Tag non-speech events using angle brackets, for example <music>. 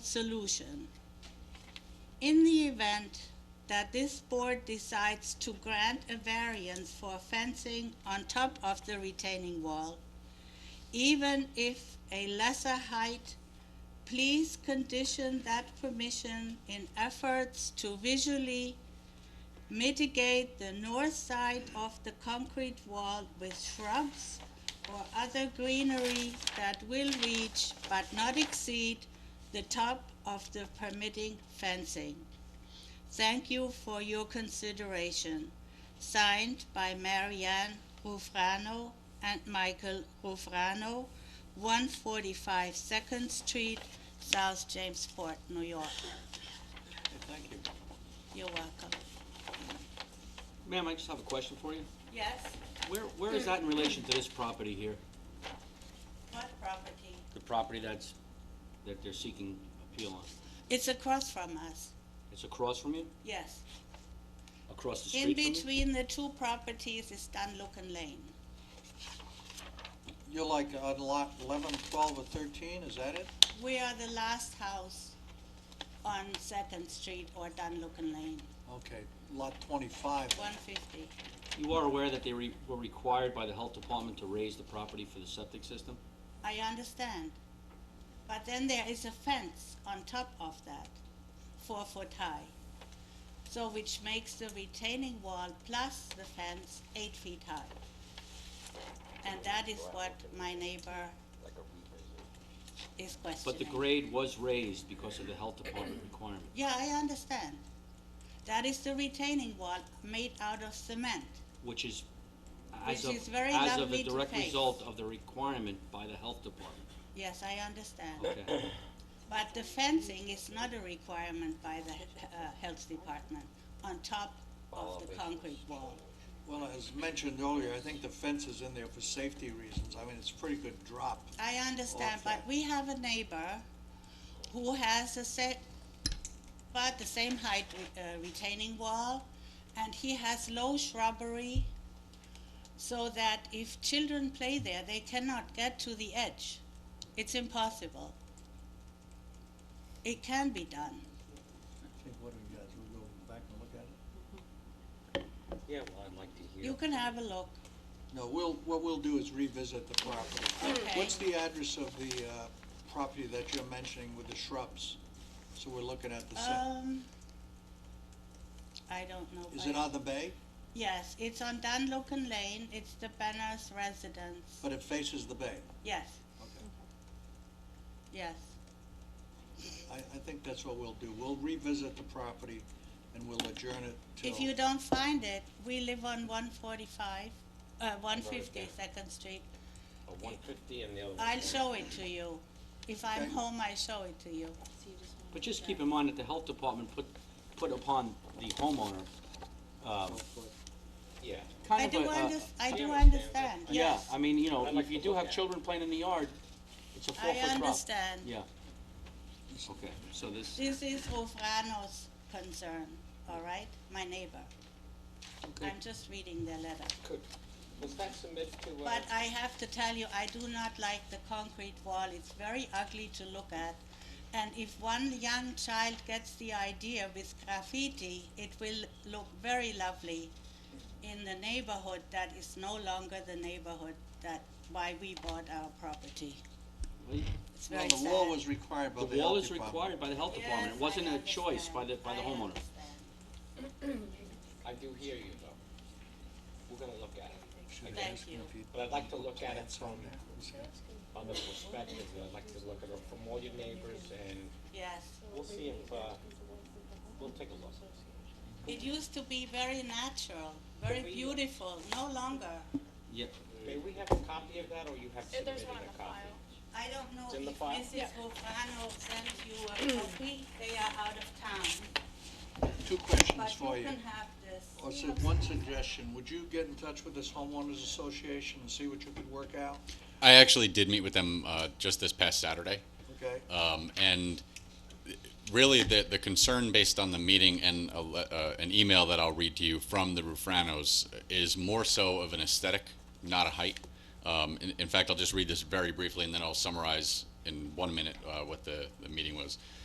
solution. In the event that this board decides to grant a variance for fencing on top of the retaining wall, even if a lesser height, please condition that permission in efforts to visually mitigate the north side of the concrete wall with shrubs or other greenery that will reach but not exceed the top of the permitting fencing. Thank you for your consideration. Signed by Marianne Rufrano and Michael Rufrano, 145 Second Street, South Jamesport, New York. Thank you. You're welcome. Ma'am, I just have a question for you. Yes, Where, where is that in relation to this property here? what property? The property that's, that they're seeking appeal on? It's across from us, It's across from you? yes. Across the In street from you? between the two properties is Dunlucken Lane. You're like on lot 11, 12, or 13, is that it? We are the last house on Second Street or Dunlucken Lane, Okay, lot 25. one fifty. You are aware that they re- were required by the health department to raise the property for the septic system? I understand. But then there is a fence on top of that, four foot high. So which makes the retaining wall plus the fence eight feet high. And that is what my neighbor is questioning. But the grade was raised because of the health department <clears throat> requirement. Yeah, I understand. That is the retaining wall made out of cement. which is, as of, Which is very as of lovely a to direct face. result of the requirement by the health department. Yes, I understand. Okay, But the fencing is not a requirement by the uh, health department on top of the concrete wall. Well, as mentioned earlier, I think the fence is in there for safety reasons. I mean, it's a pretty good drop. I understand, but Okay. we have a neighbor who has a set, about the same height re- uh, retaining wall, and he has low shrubbery, so that if children play there, they cannot get to the edge. It's impossible. It can be done. Okay, what do you guys, we go back and look at it? <coughs> yeah, well, I'd like to You can have a look, No, we'll, what we'll do is revisit the property. Okay. What's the address of the uh, property that you're mentioning with the shrubs? So we're looking at the, se- um, I don't know. is by- it on the bay? Yes, it's on Dunlocken Lane, it's the Benner's residence, But it faces the bay? yes, Okay. yes. I, I think that's what we'll do. We'll revisit the property and we'll adjourn it till... If you don't find it, we live on one forty-five, uh, one fifty Second Street. One fifty and the other one. I'll show it to you. If I'm Okay. home, I show it to you. But just keep in mind that the health department put, put upon the homeowner, um, Yeah. I kind of do a, uh, under, I do understand that. understand, yeah, yes. I mean, you know, I'd like if you to do look have at it. children playing in the yard, it's a I four-foot drop. understand. Yeah. Okay, so this, This is Rufrano's concern, all right? My neighbor. okay, I'm just reading their letter. Could, was that submitted to, uh? But I have to tell you, I do not like the concrete wall. It's very ugly to look at. And if one young child gets the idea with graffiti, it will look very lovely in the neighborhood that is no longer the neighborhood that why we bought our property. Well, It's Well, very the sad. wall was required by the the wall health is department. required by the health department, Yes, it wasn't I a choice by the, by understand. the I homeowner. understand. I do hear you though. We're gonna look at it. Should Thank ask him you. if he'd But I'd like to look at it plants from on there. other perspectives. I'd like to look at it from all your neighbors and Yes. we'll see if, uh, we'll take a look. It used to be very natural, very But we- beautiful, no longer. Yeah, May we have a copy of that or you have Uh, submitted There's one in a the copy? file. I don't know It's in the if file? Mrs. Rufrano sent you a copy, they are out of town, Two questions but for you you. can have this. Or so one suggestion, would you get in touch with this homeowners association and see what you could work out? I actually did meet with them uh, just this past Saturday, Okay? um, and really the the concern based on the meeting and a, le- uh, an email that I'll read to you from the Rufranos is more so of an aesthetic, not a height. Um, in, in fact, I'll just read this very briefly, and then I'll summarize in one minute uh, what the, the meeting was.